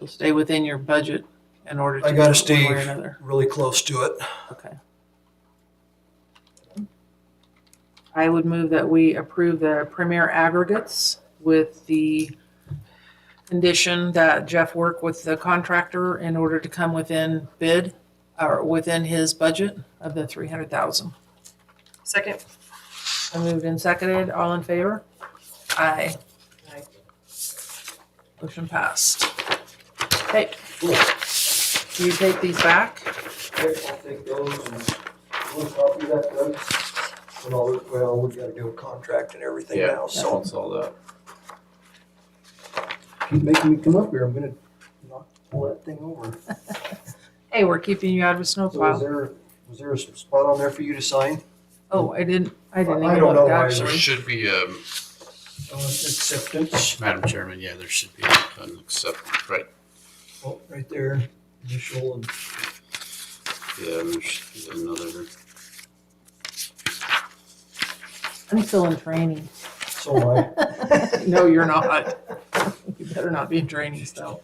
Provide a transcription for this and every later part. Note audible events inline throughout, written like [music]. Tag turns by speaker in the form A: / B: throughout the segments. A: You'll stay within your budget in order to.
B: I gotta
A: do it one
B: stay
A: way or another.
B: really close to it.
A: Okay. I would move that we approve the Premier Aggregates with the condition that Jeff work with the contractor in order to come within bid or within his budget of the three hundred thousand.
C: Second.
A: I moved and seconded. All in favor? Aye.
C: Aye.
A: Motion passed. Okay. Do you take these back?
B: Okay, I'll take those and we'll copy that, Doug. And all, well, we gotta do a contract and everything
D: Yeah,
B: now,
D: so
B: so
D: it's all that.
B: keep making me come up here, I'm gonna knock, pull that thing over.
A: Hey, we're keeping you out of a snow
B: So
A: pile.
B: is there, was there a spot on there for you to sign?
A: Oh, I didn't, I didn't
B: I
A: even
B: don't know
A: look,
B: why
D: There
A: actually.
D: should be, um,
B: Uh, acceptance,
D: Madam Chairman, yeah, there should be an accept, right,
B: oh, right there, initial and.
D: yeah, there should be another.
A: [laughs] I'm still in training.
B: So [laughs]
A: [laughs]
B: am
A: No, you're not. [laughs] You better not be in training still.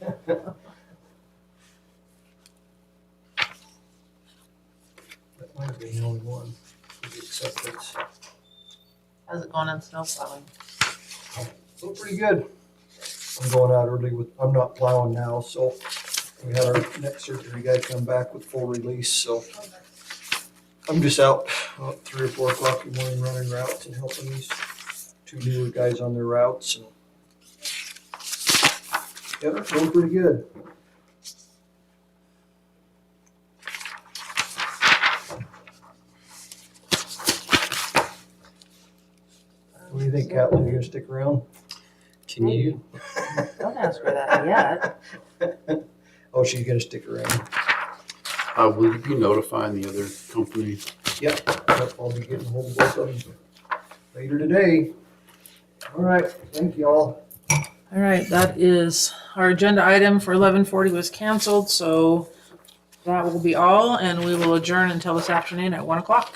B: That might have been the only one, with the acceptance.
A: How's it going on snow plowing?
B: So pretty good. I'm going out early with, I'm not plowing now, so we had our neck surgery guy come back with full release, so. I'm just out about three or four o'clock in the morning running routes and helping these two newer guys on their routes and. Yeah, they're going pretty good. What do you think, Catlin? You gonna stick around?
D: Can you?
A: Don't ask for that yet.
B: Oh, she's gonna stick around.
D: Uh, will you be notifying the other company?
B: Yep, I'll be getting hold of both of them later today. All right, thank y'all.
A: All right, that is, our agenda item for eleven forty was canceled, so that will be all, and we will adjourn until this afternoon at one o'clock.